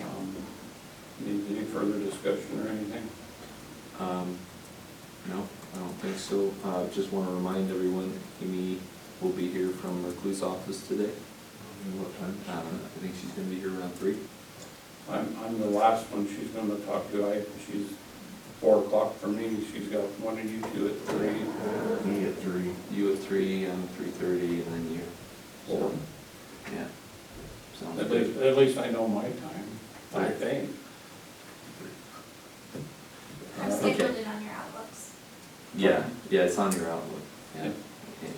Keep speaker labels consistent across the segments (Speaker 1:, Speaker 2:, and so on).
Speaker 1: Um, further discussion or anything?
Speaker 2: Um, No, I don't think so. Uh, Just want to remind everyone, Amy will be here from recluse office today.
Speaker 3: What time?
Speaker 2: Uh, I think she's going to be here around three.
Speaker 1: I'm, I'm the last one she's gonna talk to, I, she's four o'clock for me, she's got one of you two at three,
Speaker 3: Me at three.
Speaker 2: You at three, I'm three thirty, and then you.
Speaker 1: four.
Speaker 2: Yeah. Sounds
Speaker 1: At
Speaker 2: good.
Speaker 1: least, at least I know my time, I
Speaker 2: Right.
Speaker 1: think.
Speaker 4: I've
Speaker 2: Okay.
Speaker 4: scheduled it on your outlooks.
Speaker 2: Yeah, yeah, it's on your outlook. Yeah.
Speaker 1: Yeah.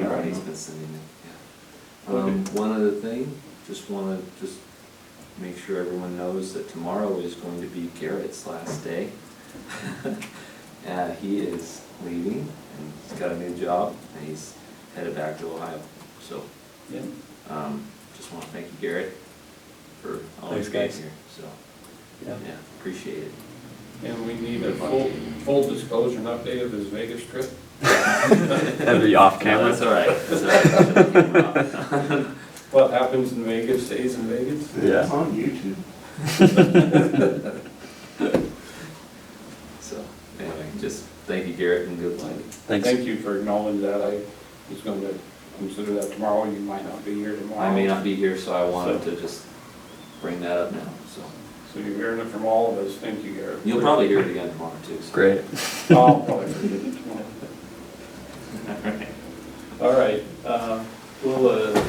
Speaker 2: Okay. Everybody's been sending it, yeah. Um,
Speaker 1: Okay.
Speaker 2: one other thing, just want to just make sure everyone knows that tomorrow is going to be Garrett's last day. Uh, he is leaving and he's got a new job and he's headed back to Ohio. So,
Speaker 1: Yeah.
Speaker 2: um, just want to thank you, Garrett, for always being
Speaker 5: Thanks, guys.
Speaker 2: here, so, yeah, appreciate it.
Speaker 1: And we need a full, full disclosure and update of his Vegas trip.
Speaker 5: That'd be off
Speaker 2: No,
Speaker 5: camera.
Speaker 2: That's all right, that's all right.
Speaker 1: What happens in Vegas stays in Vegas.
Speaker 5: Yeah.
Speaker 3: It's on YouTube.
Speaker 2: So, anyway, just thank you Garrett and good luck.
Speaker 5: Thanks.
Speaker 1: Thank you for acknowledging that, I was gonna consider that tomorrow, you might not be here tomorrow.
Speaker 2: I may not be here, so I wanted to just bring that up now, so.
Speaker 1: So you're hearing it from all of us, thank you, Garrett.
Speaker 2: You'll probably hear it again tomorrow too, so.
Speaker 5: Great.
Speaker 1: I'll probably forget it tomorrow.
Speaker 2: All right.
Speaker 1: All right, uh, we'll uh,